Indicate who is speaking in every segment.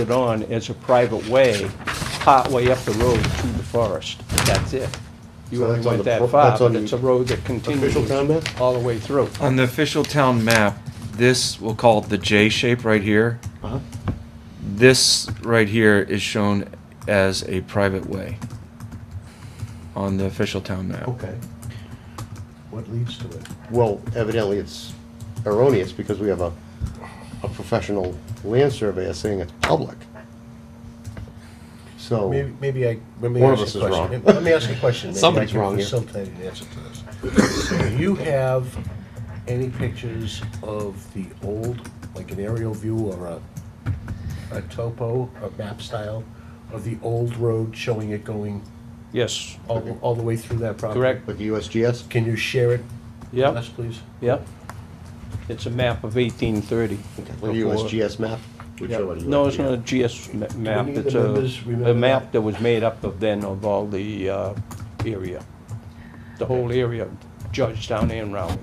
Speaker 1: it on as a private way, partway up the road to the forest. That's it. You
Speaker 2: So
Speaker 1: only
Speaker 2: that's on
Speaker 1: went
Speaker 2: the
Speaker 1: that
Speaker 2: pro-
Speaker 1: far,
Speaker 2: that's on
Speaker 1: but it's a
Speaker 2: the
Speaker 1: road that continues
Speaker 2: official town map?
Speaker 1: all the way through.
Speaker 3: On the official town map, this, we'll call it the J shape right here.
Speaker 2: Uh-huh.
Speaker 3: This right here is shown as a private way on the official town map.
Speaker 4: Oh.
Speaker 2: Okay. What leads to it? Well, evidently it's erroneous because we have a, a professional land surveyor saying it's public. So,
Speaker 4: Maybe, maybe I, let me
Speaker 2: One
Speaker 4: ask
Speaker 2: of us
Speaker 4: you a
Speaker 2: is
Speaker 4: question.
Speaker 2: wrong.
Speaker 4: Let me ask you a question. Maybe I
Speaker 2: Somebody's
Speaker 4: can
Speaker 2: wrong here.
Speaker 4: Facilitate an answer to this. Do you have any pictures of the old, like an aerial view or a, a topo, a map style of the old road showing it going
Speaker 1: Yes,
Speaker 4: all, all the way through that property?
Speaker 1: correct,
Speaker 2: with the USGS,
Speaker 4: Can you share it? with
Speaker 1: yep,
Speaker 4: us, please?
Speaker 1: yep. It's a map of eighteen thirty.
Speaker 2: with the USGS map?
Speaker 1: Yeah. No, it's not a GS ma- map,
Speaker 4: any of the
Speaker 1: it's a,
Speaker 4: members remember
Speaker 1: a map
Speaker 4: that?
Speaker 1: that was made up of then of all the, uh, area. The whole area, of Georgetown and Round.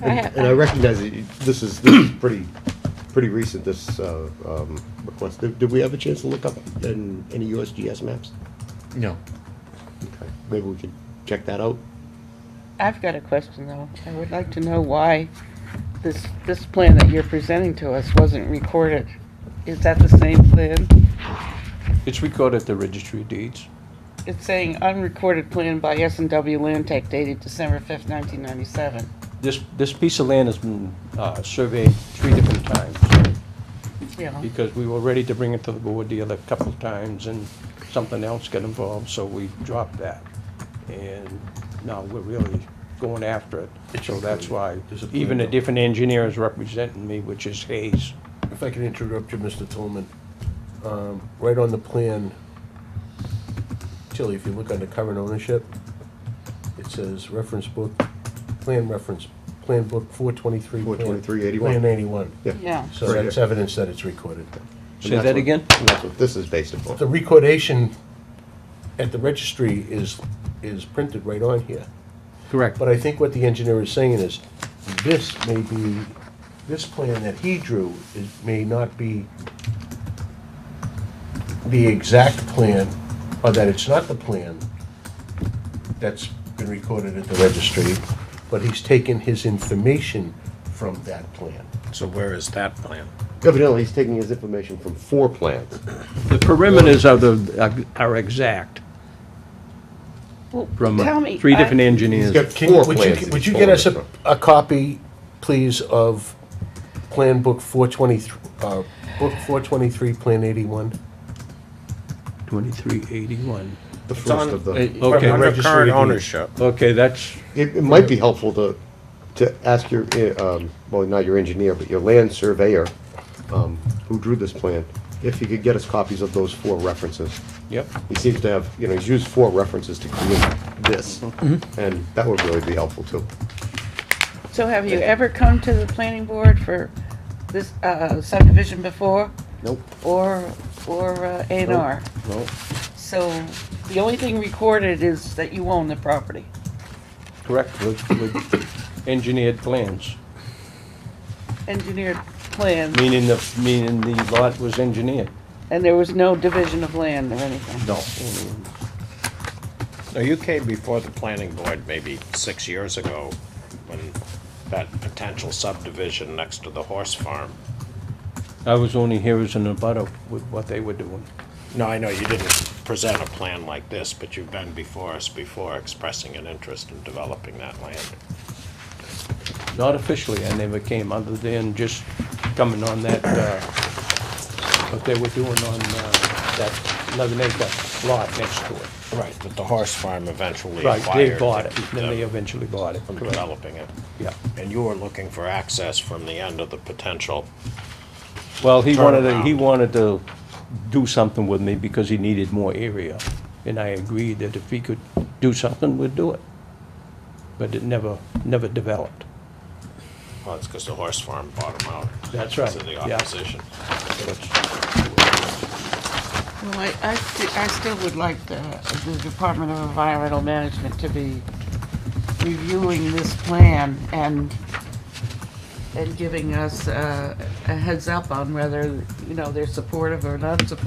Speaker 5: I ha-
Speaker 2: And I recognize that you- this is, this is pretty, pretty recent, this, uh, um, request. Did, did we have a chance to look up in, any USGS maps?
Speaker 3: No.
Speaker 2: Okay. Maybe we could check that out?
Speaker 5: I've got a question though. I would like to know why this, this plan that you're presenting to us wasn't recorded. Is that the same plan?
Speaker 1: It's recorded at the registry of deeds.
Speaker 5: It's saying unrecorded plan by S and W Land Tech dated December fifth, nineteen ninety-seven.
Speaker 1: This, this piece of land has been, uh, surveyed three different times,
Speaker 5: Yeah,
Speaker 1: because we were ready to bring it to the board the other couple of times, and something else got involved, so we dropped that. And now we're really going after it, so that's why,
Speaker 4: There's a plan
Speaker 1: even a
Speaker 4: now.
Speaker 1: different engineer is representing me, which is Hayes.
Speaker 4: If I can interrupt you, Mr. Tillman, um, right on the plan, Tilly, if you look under current ownership, it says reference book, plan reference, plan book four twenty-three.
Speaker 2: 423.81.
Speaker 4: Plan eighty-one.
Speaker 5: yeah.
Speaker 4: So
Speaker 2: Right
Speaker 4: that's
Speaker 2: here.
Speaker 4: evidence that it's recorded.
Speaker 2: And
Speaker 1: Say
Speaker 2: that's
Speaker 1: that
Speaker 2: what-
Speaker 1: again?
Speaker 2: and That's what this is based upon.
Speaker 4: The recordation at the registry is, is printed right on here.
Speaker 1: Correct.
Speaker 4: But I think what the engineer is saying is, this may be, this plan that he drew is, may not be the exact plan, or that it's not the plan that's been recorded at the registry, but he's taken his information from that plan.
Speaker 6: So where is that plan?
Speaker 2: Evidently, he's taking his information from four plans.
Speaker 1: The perimeters are the, uh, are exact
Speaker 5: Well,
Speaker 1: from uh,
Speaker 5: tell me,
Speaker 1: three
Speaker 5: I-
Speaker 1: different engineers.
Speaker 2: He's got
Speaker 4: Can,
Speaker 2: four
Speaker 4: would
Speaker 2: plans.
Speaker 4: you,
Speaker 2: that
Speaker 4: would
Speaker 2: he's
Speaker 4: you get us a,
Speaker 2: pulling from.
Speaker 4: a copy, please, of Plan Book four twenty-three, uh, Book four twenty-three, Plan eighty-one?
Speaker 1: Twenty-three eighty-one.
Speaker 2: The first of the,
Speaker 6: It-
Speaker 2: it,
Speaker 1: Okay.
Speaker 6: Under
Speaker 4: Registered
Speaker 6: current
Speaker 4: deeds.
Speaker 6: ownership.
Speaker 1: Okay, that's,
Speaker 2: it might be helpful to, to ask your, uh, um, well, not your engineer, but your land surveyor, um, who drew this plan, if he could get us copies of those four references.
Speaker 1: yep,
Speaker 2: He seems to have, you know, he's used four references to create this, and that would really be helpful too.
Speaker 5: So have you ever come to the planning board for this, uh, subdivision before?
Speaker 2: Nope.
Speaker 5: Or, or uh, A and R?
Speaker 1: well,
Speaker 5: So the only thing recorded is that you own the property.
Speaker 1: correct, with, with engineered plans,
Speaker 5: engineered plan,
Speaker 1: meaning the, meaning the lot was engineered.
Speaker 5: and there was no division of land or anything.
Speaker 1: No.
Speaker 6: Now, you came before the planning board maybe six years ago when that potential subdivision next to the horse farm.
Speaker 1: I was only here as an abutter with what they were doing.
Speaker 6: No, I know you didn't present a plan like this, but you've been before us before expressing an interest in developing that land.
Speaker 1: Not officially, I never came, other than just coming on that, uh, what they were doing on, uh, that eleven acre lot next to it.
Speaker 6: Right, but the horse farm eventually
Speaker 1: Right, they
Speaker 6: acquired
Speaker 1: bought
Speaker 6: to
Speaker 1: it,
Speaker 6: keep
Speaker 1: then they
Speaker 6: them
Speaker 1: eventually bought it,
Speaker 6: from
Speaker 1: correct,
Speaker 6: developing it.
Speaker 1: yeah.
Speaker 6: And you were looking for access from the end of the potential.
Speaker 1: Well, he wanted, to- he
Speaker 6: Turnaround.
Speaker 1: wanted to do something with me because he needed more area, and I agreed that if he could do something, we'd do it. But it never, never developed.
Speaker 6: Well, it's because the horse farm bought them out.
Speaker 1: That's right,
Speaker 6: To the
Speaker 1: yeah.
Speaker 6: opposition.
Speaker 5: Well, I, I, sti- I still would like the, the Department of Environmental Management to be reviewing this plan and and giving us uh, a heads up on whether, you know, they're supportive or not supportive